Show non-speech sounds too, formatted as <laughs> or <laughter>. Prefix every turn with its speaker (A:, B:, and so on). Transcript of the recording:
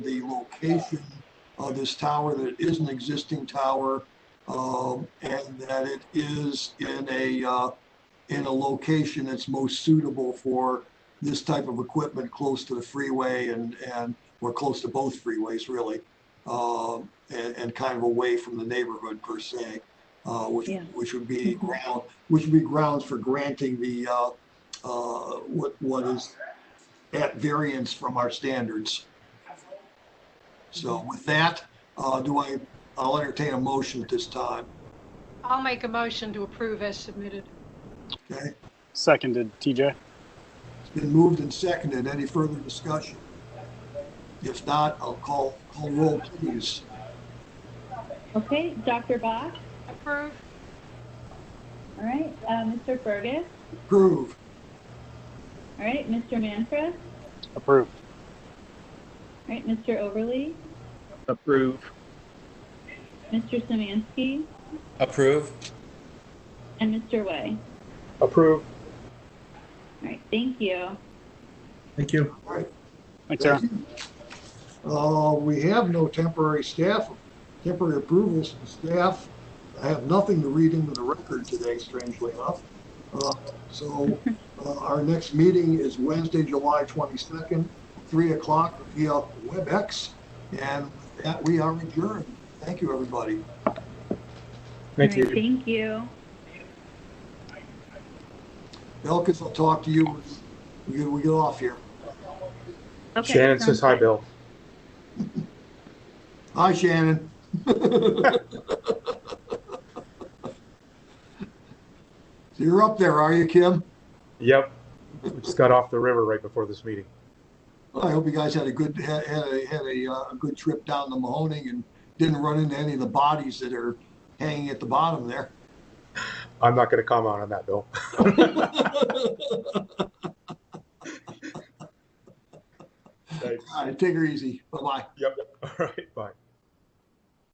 A: the location of this tower, that it is an existing tower, um, and that it is in a, uh, in a location that's most suitable for this type of equipment close to the freeway and, and, or close to both freeways, really. Um, and, and kind of away from the neighborhood per se, uh, which,
B: Yeah.
A: which would be ground, which would be grounds for granting the, uh, uh, what, what is at variance from our standards. So with that, uh, do I, I'll entertain a motion at this time,
C: I'll make a motion to approve as submitted.
A: okay?
D: Seconded, TJ.
A: It's been moved and seconded. Any further discussion? If not, I'll call, call roll, please.
B: Okay, Dr. Bach,
C: Approve?
B: all right, uh, Mr. Fergus,
A: Approve.
B: all right, Mr. Manfred, all
D: Approved.
B: right, Mr. Overly,
E: Approve.
B: Mr. Samansky,
F: Approve?
B: and Mr. Way.
E: Approve.
B: All right, thank you.
E: Thank you.
D: Thanks, Aaron.
A: Uh, we have no temporary staff, temporary approvals from staff. I have nothing to read into the record today, strangely enough. Uh, so, uh, our next meeting is Wednesday, July twenty-second, three o'clock via WebEx. And with that, we are adjourned. Thank you, everybody.
E: Thank
B: All right,
E: you.
B: Thank you.
A: Elkins, I'll talk to you. when We get, we get off here.
B: Okay.
E: Shannon
B: sounds
E: says hi,
B: good.
E: Bill.
A: Hi, Shannon. So You're up there, are you, Kim?
E: Yep. We just got off the river right before this meeting.
A: Well, I hope you guys had a good, had had a, had a, uh, a good trip down to Mahoning and didn't run into any of the bodies that are hanging at the bottom there.
E: I'm not going to comment on that, Bill.
A: All right, take her easy. Bye-bye.
E: <laughs> Yep. All right. Bye.